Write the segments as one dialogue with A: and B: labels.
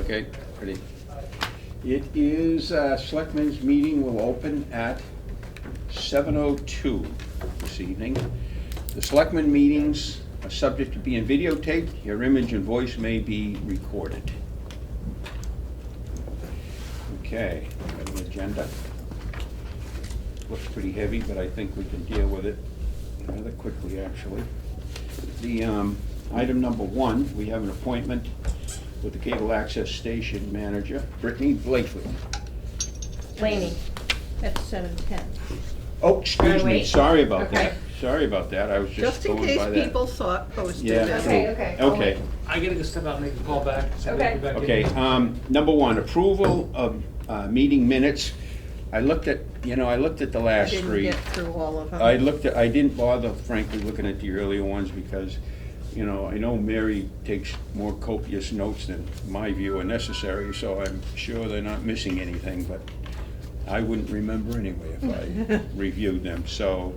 A: Okay, ready?
B: It is, uh, Selectmen's meeting will open at 7:02 this evening. The Selectmen meetings are subject to being videotaped. Your image and voice may be recorded. Okay, we have an agenda. Looks pretty heavy, but I think we can deal with it rather quickly, actually. The, um, item number one, we have an appointment with the cable access station manager, Brittany Blakely.
C: Laney, that's seven ten.
B: Oh, excuse me,
C: wait.
B: sorry about
C: Okay.
B: that. Sorry about that, I was just
C: Just in
B: going
C: case
B: by that.
C: people thought posted
B: Yeah.
C: that.
D: Okay,
B: true.
D: okay.
B: Okay,
E: I gotta go step out and make a call back. so we can go back in.
B: okay. Um, number one, approval of, uh, meeting minutes. I looked at, you know, I looked at the
C: I
B: last
C: didn't
B: three.
C: get through all of them.
B: I looked at, I didn't bother frankly looking at the earlier ones because, you know, I know Mary takes more copious notes than my view are necessary, so I'm sure they're not missing anything, but I wouldn't remember anyway if I reviewed them. So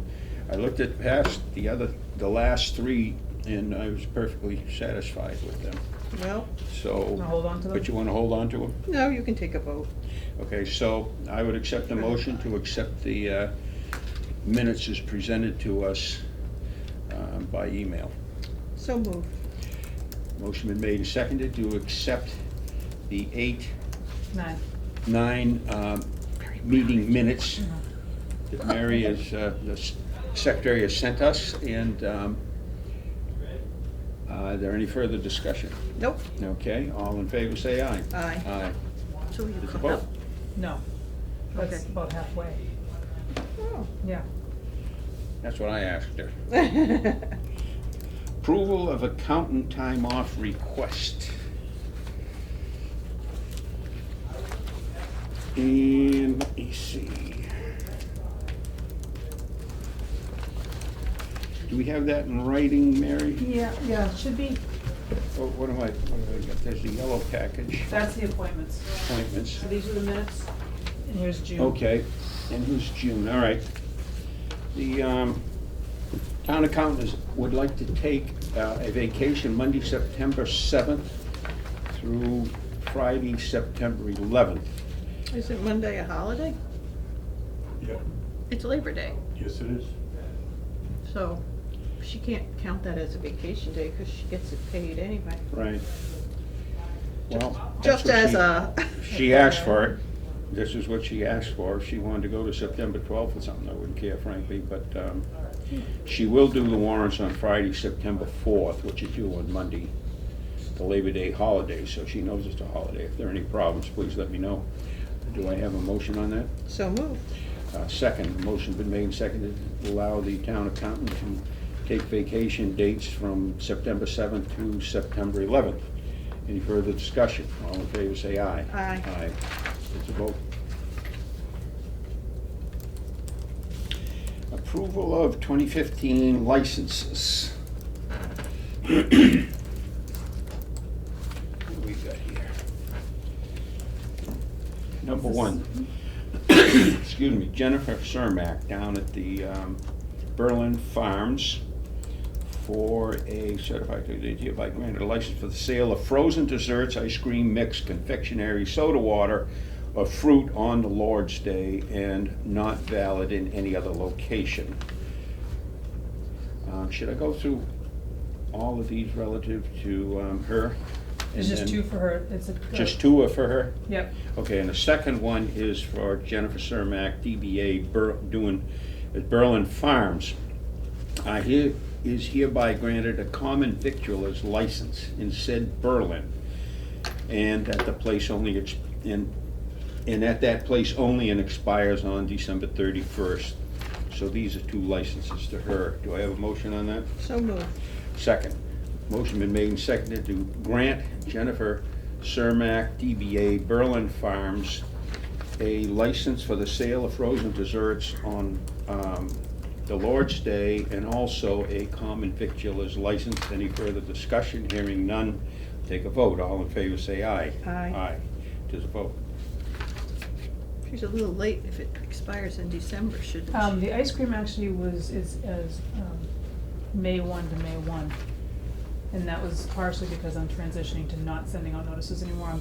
B: I looked at past the other, the last three and I was perfectly satisfied with them,
C: Well,
B: so.
D: Wanna hold on to them?
B: But you wanna hold on to them?
C: no, you can take a vote.
B: Okay, so I would accept a motion to accept the uh, minutes as presented to us um, by email.
C: So move.
B: Motion been made and seconded to accept the eight,
D: Nine.
B: nine um, meeting minutes that Mary is, uh, the s- secretary has sent us, and um, uh, is there any further discussion?
C: Nope,
B: Okay, all in favor, say aye.
C: Aye.
B: Aye.
C: so you
B: It's a
C: come
B: vote.
C: up.
D: No. That's
C: Okay.
D: about halfway.
C: Oh.
D: Yeah.
B: That's what I asked her. Approval of accountant time off request. And let me see. Do we have that in writing, Mary?
D: Yeah, yeah, should be.
B: Oh, What am I, what have I got? There's the yellow package,
D: That's the appointments.
B: appointments.
D: These are the minutes. And here's June.
B: Okay, and who's June, all right. The um, town accountant is- would like to take uh, a vacation Monday, September 7th through Friday, September 11th.
C: Is it Monday a holiday?
F: Yeah,
C: It's Labor Day,
F: yes it is.
C: so she can't count that as a vacation day because she gets it paid anyway.
B: Right. Well, that's
C: Just
B: what
C: as
B: she-
C: a,
B: She asked for it. This is what she asked for. If she wanted to go to September 12th or something, I wouldn't care frankly, but um, she will do the warrants on Friday, September 4th, which is due on Monday, the Labor Day holiday, so she knows it's a holiday. If there are any problems, please let me know. Do I have a motion on that?
C: so move.
B: Uh, Second, the motion been made and seconded, to allow the town accountant to take vacation dates from September 7th to September 11th. Any further discussion? All in favor, say aye.
C: Aye.
B: Aye. It's a vote. Approval of 2015 licenses. What do we got here? Number one, excuse me, Jennifer Cermak down at the um, Berlin Farms for a certified, they hereby granted a license for the sale of frozen desserts, ice cream mix, confectionery, soda water, or fruit on the Lord's Day and not valid in any other location. Um, Should I go through all of these relative to um, her?
D: It's
B: and
D: just
B: then-
D: two for her. It's a.
B: Just two are for her?
D: Yep.
B: Okay, and the second one is for Jennifer Cermak, DBA Ber- doing, at Berlin Farms. I here, is hereby granted a common victualer's license in said Berlin. And at the place only, ex- and, and at that place only and expires on December thirty-first. So these are two licenses to her. Do I have a motion on that?
C: So move.
B: Second. Motion been made and seconded to grant Jennifer Cermak, DBA Berlin Farms, a license for the sale of frozen desserts on um, the Lord's Day and also a common victualer's license. Any further discussion? Hearing none, take a vote. All in favor, say aye.
C: Aye.
B: Aye. Tis a vote.
C: She's a little late if it expires in December, shouldn't
D: Um,
C: she?
D: the ice cream actually was, is, is, um, May one to May one. And that was partially because I'm transitioning to not sending out notices anymore. I'm